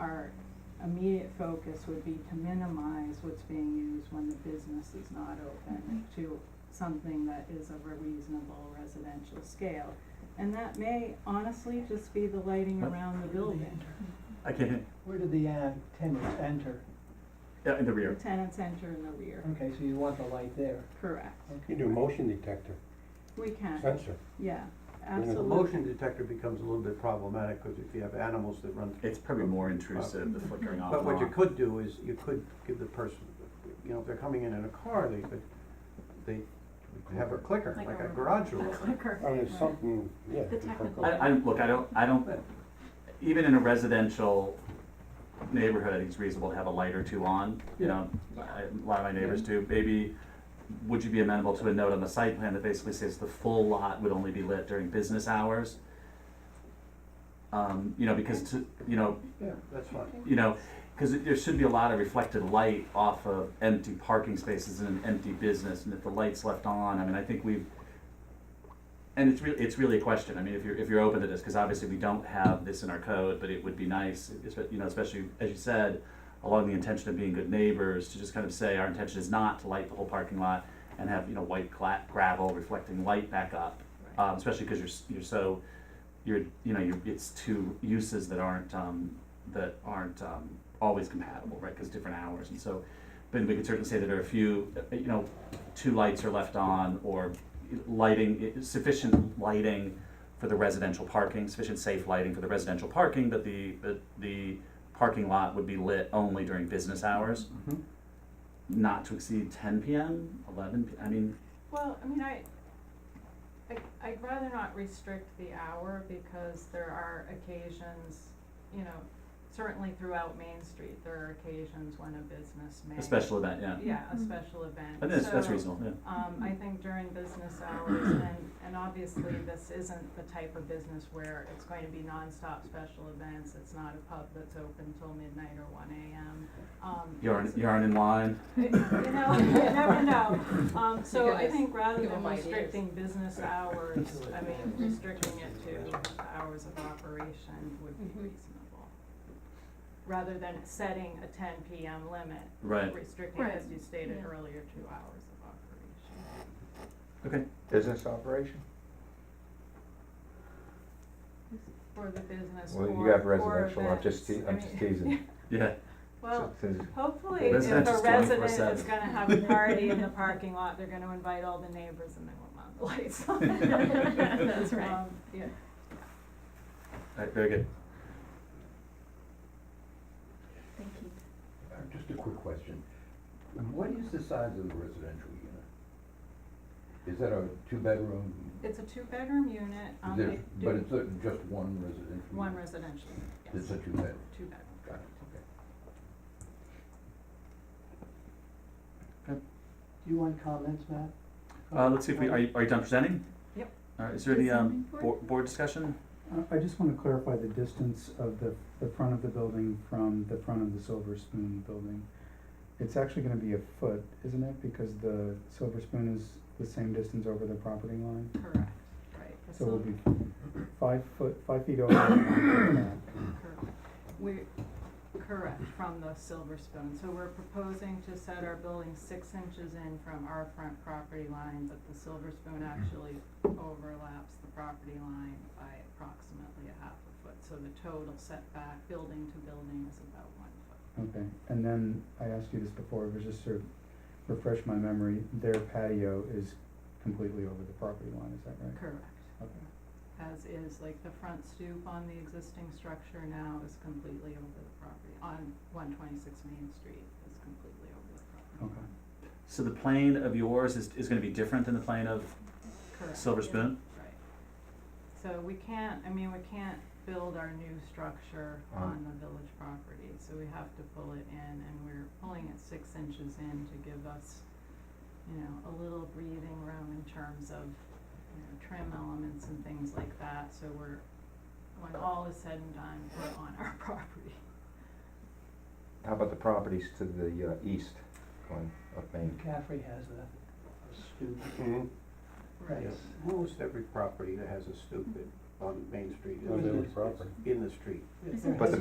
our immediate focus would be to minimize what's being used when the business is not open to something that is of a reasonable residential scale. And that may honestly just be the lighting What? around the building, I can't, Where did the uh, tenants enter? yeah, in the the rear. tenants enter in the rear, Mm. Okay, so you want the light there. correct. Okay. You do motion detector, We Uh, can, sensor. yeah, And the absolutely. motion detector becomes a little bit problematic, because if you have animals that run through. It's probably more intrusive, the flickering off But what and you on. could do is, you could give the person, you know, if they're coming in in a car, they could, they have a clicker, Like like a- a garage A door. clicker. Oh, I mean, it's Right. something, yeah. The technical- I, I, look, I don't, I don't, even in a residential neighborhood, I think it's reasonable to have a light or two on, you know? I- A lot of my neighbors do, maybe, would you be amenable to a note on the site plan that basically says the full lot would only be lit during business hours? Um, you know, because to, you know, Yeah, that's fine. you know, because there should be a lot of reflected light off of empty parking spaces in an empty business, and if the light's left on, I mean, I think we've, and it's really, it's really a question, I mean, if you're, if you're open to this, because obviously we don't have this in our code, but it would be nice, espe- you know, especially, as you said, along the intention of being good neighbors, to just kind of say, our intention is not to light the whole parking lot and have, you know, white gla- gravel reflecting light back up, um, especially because you're, s- you're so, you're, you know, you're, it's two uses that aren't, um, that aren't um, always compatible, right? Because different hours, and so, but we could certainly say that there are a few, uh, you know, two lights are left on, or lighting sufficient lighting for the residential parking, sufficient safe lighting for the residential parking, that the that the parking lot would be lit only during business hours, Mhm. not to exceed ten p.m., eleven. P- I mean, Well, I mean, I, I, I'd rather not restrict the hour because there are occasions, you know, certainly throughout Main Street, there are occasions when a business may. a special event, yeah. Yeah, a Mhm. special event. I think that's, that's So, reasonable. Yeah. Um, I think during business hours, and, and obviously this isn't the type of business where it's going to be nonstop special events. It's not a pub that's open till midnight or one AM, um. You aren't, it's- you aren't in line. you know, you never know. Um, so You I guys think rather give than 'em ideas. restricting business hours, I mean, restricting it to the hours of operation would be Mhm. reasonable. Rather than setting a ten PM limit, Right. restricting, as you stated yeah. earlier, two hours of operation. Okay. Business operation? For the business or, Well, or you events. got residential, I'm just te- I I'm just mean, teasing. Yeah. Well, Since- hopefully if a Residential's resident 24/7. is gonna have a party in the parking lot, they're gonna invite all the neighbors and they won't want the lights on. That's right. Um, Yeah, All right. Very good. Thank you. Uh, Just a quick question. Um, What is the size of the residential unit? Is that a two-bedroom? It's a two-bedroom unit, um, There's- they But do it's a- just one residential? one unit? residential, yes, It's a two-bedroom, two-bedroom. got it, okay. Do you want comments, Matt? Uh, let's see if we, are you, are you done presenting? Yep. All right, is there any, um, board, board discussion? I- I just want to clarify the distance of the, the front of the building from the front of the Silver Spoon building. It's actually going to be a foot, isn't it? Because the Silver Spoon is the same distance over the property line. Correct, right. The So it'll sil- be five foot, five feet over. the Correct. We're, correct, from the Silver Spoon. So we're proposing to set our building six inches in from our front property line, but the Silver Spoon actually overlaps the property line by approximately a half a foot. So the total setback, building to building, is about one foot. Okay, and then I asked you this before, but just to refresh my memory, their patio is completely over the property line, is that right? Correct. Okay. as is, like the front stoop on the existing structure now is completely over the property, on one twenty-six Main Street is completely over the property. Okay. So the plane of yours is, is gonna be different than the plane of Correct, Silver Spoon? right. So we can't, I mean, we can't build our new structure on the village property, so we have to pull it in, and we're pulling it six inches in to give us, you know, a little breathing room in terms of, you know, trim elements and things like that, so we're, when all is said and done, we're on our property. How about the properties to the uh, east on, of Main? McCaffrey has a a stoop. Mhm. Right. Yes. Almost every property that has a stoop in- on Main Street On is village is property. in the street. Yeah. Is there But the